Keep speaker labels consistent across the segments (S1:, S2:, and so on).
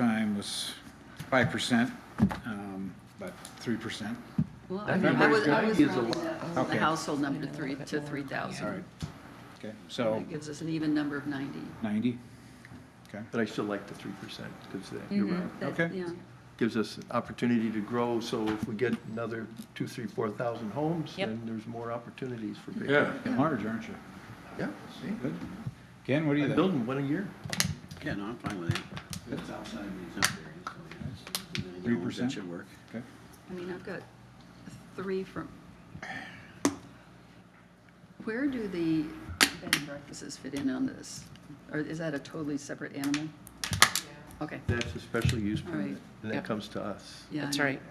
S1: time was five percent, um, but three percent.
S2: Well, I mean, I was, I was rounding the
S1: Okay.
S2: the household number to three, to three
S1: All right.
S2: thousand.
S1: Okay, so
S2: That gives us an even number of ninety.
S1: ninety? Okay,
S3: But I still like the three percent, because that, you're
S4: Mm-hmm.
S3: right,
S2: That-
S1: Okay.
S2: Yeah,
S3: gives us an opportunity to grow, so if we get another two, three, four thousand homes,
S4: Yep.
S3: then there's more opportunities for people.
S5: Yeah,
S1: Getting large, aren't you?
S3: Yeah, see,
S1: Good. Ken, what do you
S3: I'm
S1: think?
S3: building one a year.
S6: Yeah, no, I'm fine with that. It's outside of the zone area, so yeah, you know,
S1: 3%?
S6: That should work.
S1: Okay.
S2: I mean, I've got three from. Where do the bed and breakfasts fit in on this? Or is that a totally separate animal? Okay,
S3: That's a special use
S2: All right.
S3: permit, and
S4: Yep.
S3: that comes to us.
S2: yeah.
S4: That's
S2: I know.
S4: right.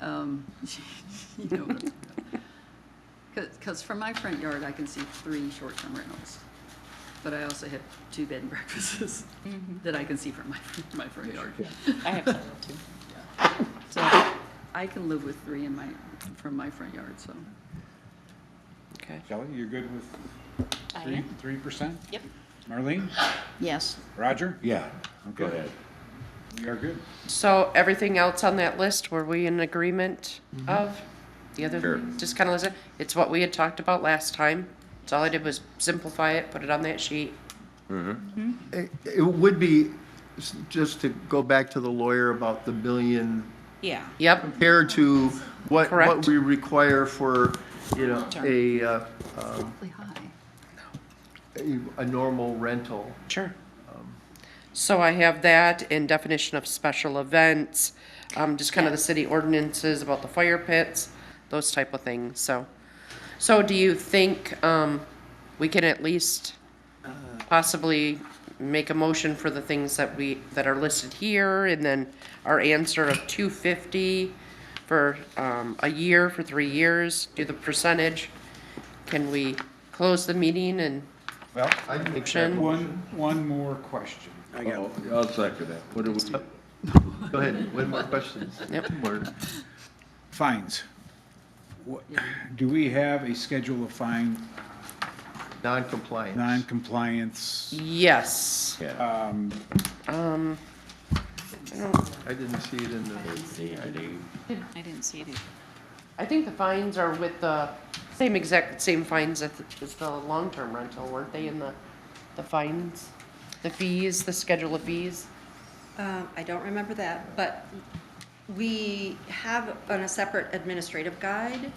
S2: Um, you know, because from my front yard, I can see three short-term rentals, but I also have two bed and breakfasts that I can see from my, my front yard.
S4: I have some too.
S2: So I can live with three in my, from my front yard, so.
S4: Okay.
S1: Shelley, you're good with
S4: I
S1: three,
S4: am.
S1: three percent?
S4: Yep.
S1: Marlene?
S4: Yes.
S1: Roger?
S5: yeah, go
S1: Okay.
S5: ahead.
S1: We are good.
S4: So everything else on that list, were we in agreement of? The other,
S5: Sure.
S4: thing, just kind of listen, it's what we had talked about last time. So all I did was simplify it, put it on that sheet.
S3: It it would be, s- just to go back to the lawyer about the billion,
S7: Yeah.
S4: Yep,
S3: compared to what, what
S4: Correct.
S3: we require for, you know,
S4: Sure.
S3: a, uh, um,
S2: Really high.
S3: a, a normal rental.
S4: sure. So I have that in definition of special events, um, just kind of the city ordinances about the fire pits, those type of things, so. So do you think, um, we can at least possibly make a motion for the things that we, that are listed here, and then our answer of two fifty for, um, a year, for three years, do the percentage? Can we close the meeting and
S1: Well,
S3: I'd make that
S4: Sure.
S3: motion.
S1: one, one more question.
S6: I got one.
S5: I'll second that. What do we,
S3: Go ahead, one more question.
S4: Yep.
S3: Or-
S1: Fines. What- Do we have a schedule of fine,
S3: Non-compliance.
S1: non-compliance?
S4: Yes.
S5: yeah,
S3: I didn't see it in the,
S7: I didn't see it.
S4: I think the fines are with the same exact, same fines as as the long-term rental, weren't they in the, the fines? The fees, the schedule of fees?
S8: Um, I don't remember that, but we have on a separate administrative guide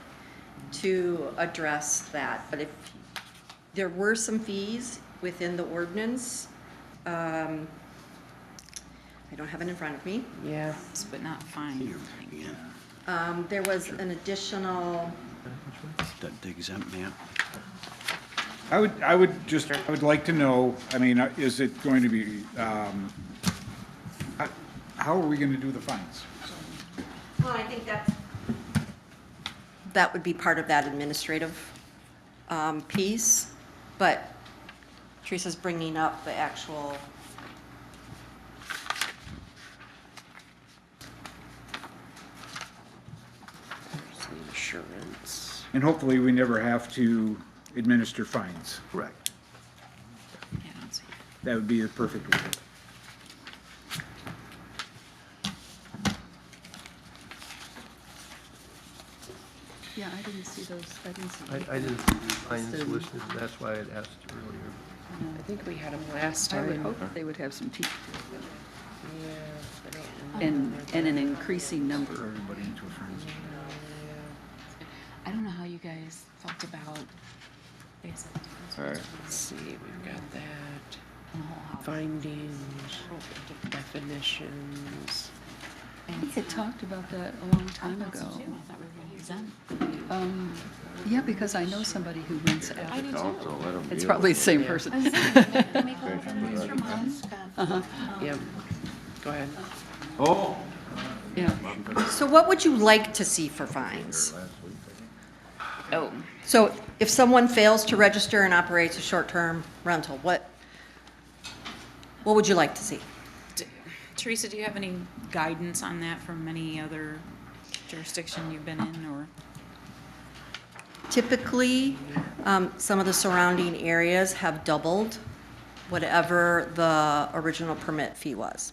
S8: to address that, but if, there were some fees within the ordinance. um, I don't have it in front of me.
S4: Yeah.
S7: But not fine.
S6: Yeah,
S8: Um, There was an additional,
S6: that digs up, man.
S1: I would, I would just, I would like to know, I mean, uh, is it going to be, um, h- how are we going to do the fines?
S8: well, I think that's. That would be part of that administrative um, piece, but Teresa's bringing up the actual
S4: There's the Insurance.
S1: And hopefully, we never have to administer fines.
S3: correct.
S7: Yeah, I don't see it.
S1: That would be the perfect world.
S2: Yeah, I didn't see those, I didn't see.
S3: I, I didn't see the fines listed, that's why I'd asked earlier.
S4: I think we had them last
S2: I would
S4: time.
S2: hope they would have some teeth to it,
S4: Yeah.
S2: and, and an increasing number.
S1: Everybody into a frenzy.
S7: I don't know how you guys felt about basic
S5: all right.
S4: Let's see, we've got that.
S7: and the whole house.
S4: Findings, definitions.
S2: I think they talked about that a long time
S7: That's
S2: ago.
S7: what I do. I thought we were gonna be done.
S2: Um, yeah, because I know somebody who rents out.
S7: do
S5: council, let them.
S2: It's probably the same person.
S4: Yep. Go ahead.
S5: Oh,
S2: Yeah.
S8: So what would you like to see for fines?
S7: Oh,
S8: So if someone fails to register and operates a short-term rental, what, what would you like to see?
S7: d- Teresa, do you have any guidance on that from any other jurisdiction you've been in or?
S8: Typically, um, some of the surrounding areas have doubled whatever the original permit fee was.